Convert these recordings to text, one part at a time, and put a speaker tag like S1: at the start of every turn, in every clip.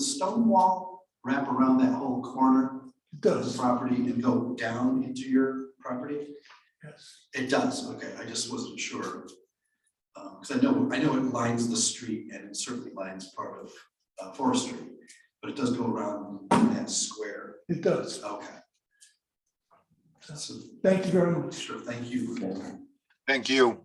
S1: stone wall wrap around that whole corner
S2: It
S1: of the
S2: does,
S1: property and go down into your property?
S2: yes.
S1: It does, okay, I just wasn't sure. Um, cause I know, I know it lines the street and it certainly lines part of, uh, Forest Street, but it does go around that square,
S2: It does.
S1: okay. So,
S2: Thank you very much.
S1: sure, thank you.
S3: Thank you.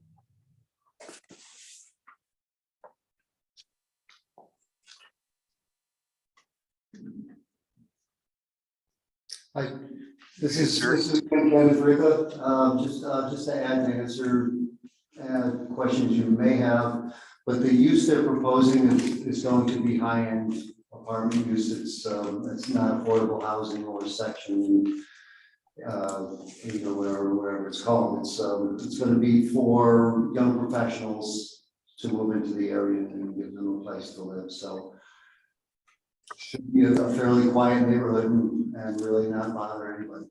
S4: Hi, this is,
S3: Sure.
S4: this is Ken Frica, um, just, uh, just to add and answer, uh, questions you may have. But the use they're proposing is, is going to be high-end apartment use, it's, um, it's not affordable housing or section. Uh, you know, whatever, whatever it's called, it's, um, it's gonna be for young professionals to move into the area and give them a place to live, so should be a fairly quiet neighborhood and and really not bother anybody.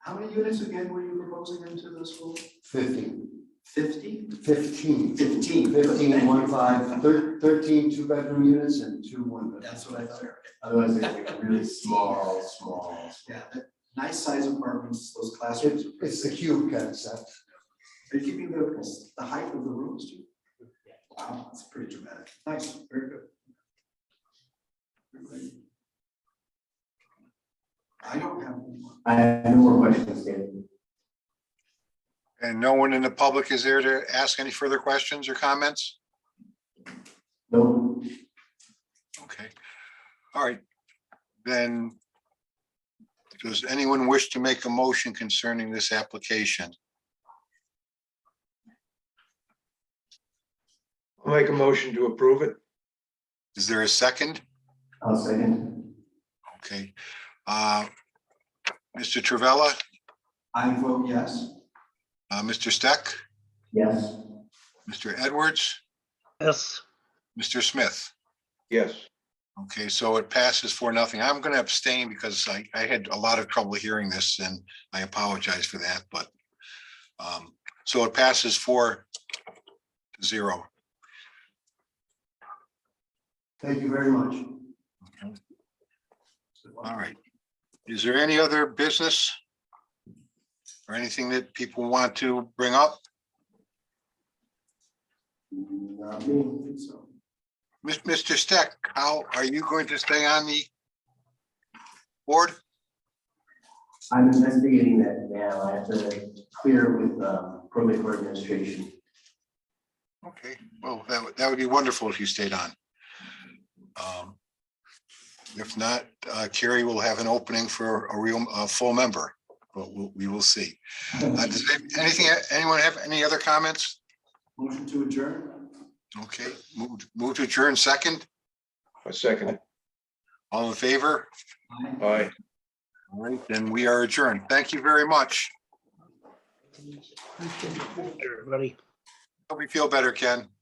S1: How many units again were you proposing into this school?
S4: Fifteen,
S1: Fifty?
S4: fifteen.
S1: Fifteen.
S4: Fifteen, one, five, thir- thirteen two-bedroom units and two one-bedroom.
S1: That's what I thought.
S4: Otherwise, they get really small, small.
S1: Yeah, that- nice size apartments, those classrooms.
S4: It's,
S1: are
S4: it's
S1: pretty
S4: the
S1: big.
S4: cube concept.
S1: Are you keeping the, the height of the rooms too? Wow, that's pretty dramatic. Nice, very good. I don't have anyone.
S5: I have no more questions, David.
S3: And no one in the public is there to ask any further questions or comments?
S5: No,
S3: Okay. All right. Then does anyone wish to make a motion concerning this application?
S6: I'll make a motion to approve it.
S3: Is there a second?
S5: I'll second.
S3: Okay. Uh, Mr. Travella,
S1: I vote yes.
S3: uh, Mr. Steck,
S5: Yes,
S3: Mr. Edwards,
S7: Yes,
S3: Mr. Smith.
S6: Yes,
S3: Okay, so it passes for nothing. I'm going to abstain because I, I had a lot of trouble hearing this and I apologize for that, but um, so it passes for zero.
S4: Thank you very much.
S3: All right. Is there any other business? Or anything that people want to bring up?
S4: Not
S1: Uh, I
S4: me.
S1: don't think so.
S3: Mis- Mr. Steck, how are you going to stay on the board?
S5: I'm investigating that now. I have to clear with um, probate court administration.
S3: Okay, well, that would, that would be wonderful if you stayed on. Um, If not, uh, Carrie will have an opening for a real, a full member, but we'll- we will see. Uh, does any- Anything, anyone have any other comments?
S1: Motion to adjourn?
S3: Okay, move, move to adjourn second,
S6: I second it.
S3: all in favor?
S1: Aye.
S6: Aye.
S3: All right, then we are adjourned. Thank you very much.
S7: everybody.
S3: Hope you feel better, Ken.